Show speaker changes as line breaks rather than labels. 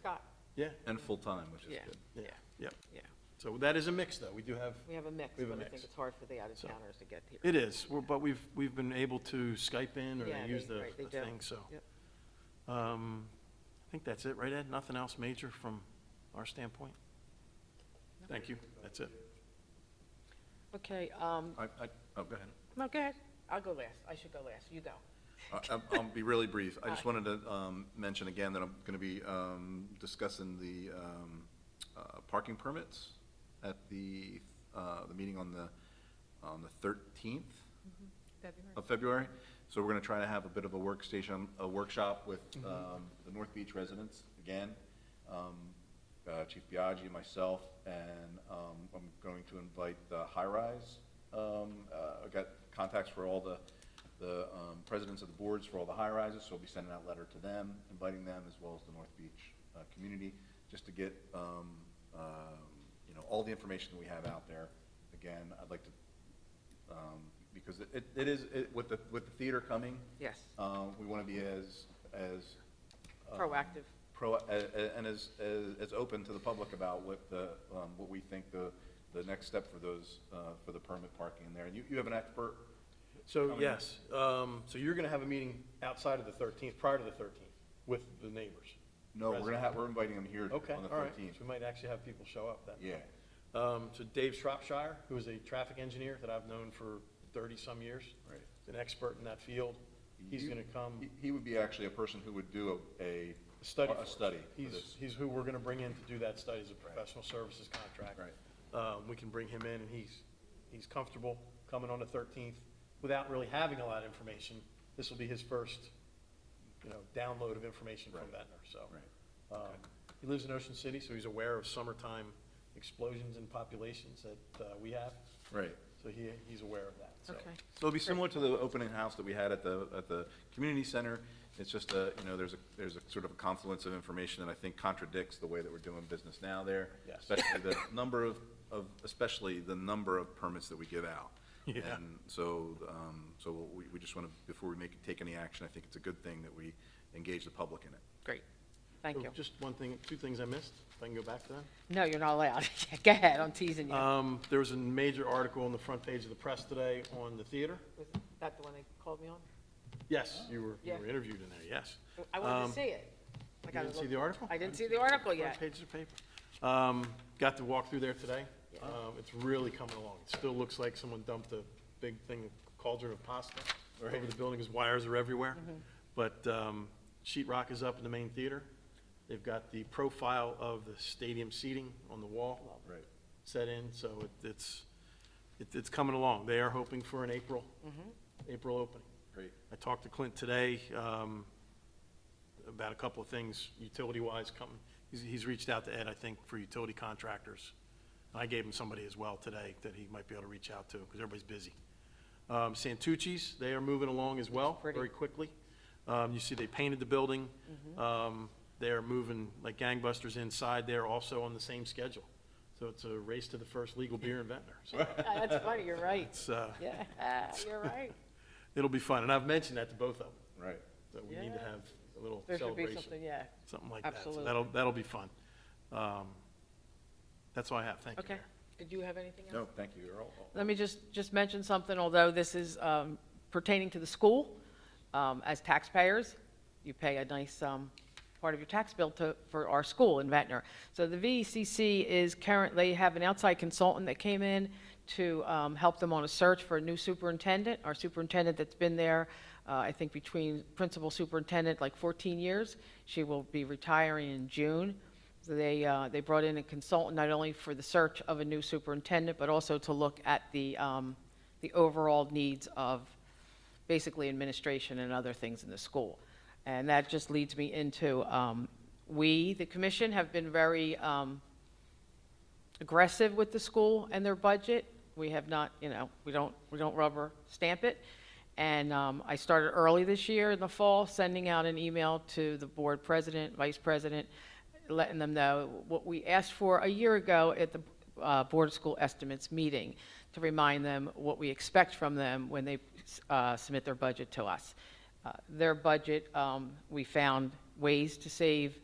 Scott,
Yeah,
And full-time, which is
yeah,
good.
yeah, yeah.
yeah.
So that is a mix, though. We do have,
We have a mix,
We
but
have a
I
mix.
think it's hard for the
So-
out-of-towners to get here.
it is, We're- but we've, we've been able to Skype in or
Yeah,
they use
they-
the
right, they
the
do.
thing, so.
Yep.
Um, I think that's it, right, Ed? Nothing else major from our standpoint? Thank you, that's it.
Okay, um,
I, I, oh, go ahead.
no, go ahead. I'll go last. I should go last. You go.
I- I'm- I'll be really brief. I just wanted to um, mention again that I'm going to be um, discussing the um, uh, parking permits at the, uh, the meeting on the, on the 13th of February. So we're going to try to have a bit of a workstation, a workshop with um, the North Beach residents again. Um, uh, Chief Biagi, myself, and um, I'm going to invite the High Rise. Um, uh, I've got contacts for all the, the um, presidents of the boards for all the high rises, so I'll be sending out a letter to them, inviting them, as well as the North Beach uh, community, just to get, um, um, you know, all the information that we have out there. Again, I'd like to, um, because it- it, it is, it- with the, with the theater coming,
Yes,
Uh,
um, we want to be as, as um,
proactive.
pro, a- a- and as, as, as open to the public about what the, um, what we think the, the next step for those, uh, for the permit parking in there. And you, you have an expert,
So,
Coming.
yes, um, so you're gonna have a meeting outside of the thirteenth, prior to the thirteenth, with the neighbors?
no, we're gonna
President.
have, we're inviting him here
Okay,
on the
all right,
thirteenth.
so we might actually have people show up then.
Yeah,
Um, so Dave Shropshire, who is a traffic engineer that I've known for thirty-some years.
Right.
is An expert in that field, he's
You-
gonna come
he, he would be actually a person who would do a, a.
study. for
A
us.
study for
He's,
this.
he's who we're gonna bring in to do that study as a professional services contract.
Right.
Um, we can bring him in and he's, he's comfortable coming on the thirteenth without really having a lot of information. This will be his first, you know, download of information from
Right.
Ventnor, so.
Right.
Um, He lives in Ocean City, so he's aware of summertime explosions in populations that, uh, we have.
Right.
So he, he's aware of that, so.
Okay.
So it'll be similar to the opening house that we had at the, at the community center. It's just a, you know, there's a, there's a sort of a confluence of information that I think contradicts the way that we're doing business now there.
Yes.
Especially the number of, of, especially the number of permits that we give out.
Yeah.
And so, um, so we, we just want to, before we make, take any action, I think it's a good thing that we engage the public in it.
Great. Thank
So
you.
Just one thing, two things I missed, if I can go back to that.
No, you're not allowed. Go ahead, I'm teasing you.
Um, there was a major article on the front page of the press today on the theater.
Was that the one they called me on?
Yes, you were, you
Yeah. Uh,
were interviewed in there, yes.
I wanted
Um,
to see it. I
You
gotta
didn't see
look-
the article?
I didn't see the article
Front
yet.
page of the paper. Um, got to walk through there today.
Yeah.
Um, it's really coming along. It still looks like someone dumped a big thing, cauldron of pasta over the building, because wires are everywhere.
Mm-hmm.
But, um, sheet rock is up in the main theater. They've got the profile of the stadium seating on the wall.
Right.
set in, so it- it's, it- it's coming along. They are hoping for an April,
Mm-hmm.
April opening.
Great.
I talked to Clint today um, about a couple of things utility-wise coming. He's, he's reached out to Ed, I think, for utility contractors. I gave him somebody as well today that he might be able to reach out to, because everybody's busy. Um, Santucci's, they are moving along as well,
Pretty.
very quickly. Um, You see, they painted the building. Um, They are moving like gangbusters inside there, also on the same schedule. So it's a race to the first legal beer in Ventnor. So
Ah, That's funny, you're right.
it's, uh,
Yeah, you're right.
it'll be fun, and I've mentioned that to both of them,
Right.
that we need to
Yeah.
have a little
There should be
celebration.
something, yeah.
something like that. So
Absolutely.
that'll, that'll be fun. Um, That's all I have. Thank you,
Okay.
Mayor.
Did you have anything else?
No, thank you. You're all- all-
Let me just, just mention something, although this is um, pertaining to the school. Um, As taxpayers, you pay a nice um, part of your tax bill to, for our school in Ventnor. So the VECC is currently, have an outside consultant that came in to um, help them on a search for a new superintendent. Our superintendent that's been there, uh, I think between principal superintendent, like 14 years. She will be retiring in June. So They, uh, they brought in a consultant not only for the search of a new superintendent, but also to look at the, um, the overall needs of basically administration and other things in the school. And that just leads me into, um, we, the commission, have been very, um, aggressive with the school and their budget. We have not, you know, we don't, we don't rubber stamp it. And um, I started early this year in the fall, sending out an email to the board president, vice president, letting them know what we asked for a year ago at the uh, Board of School Estimates meeting, to remind them what we expect from them when they uh, submit their budget to us. Uh, Their budget, um, we found ways to save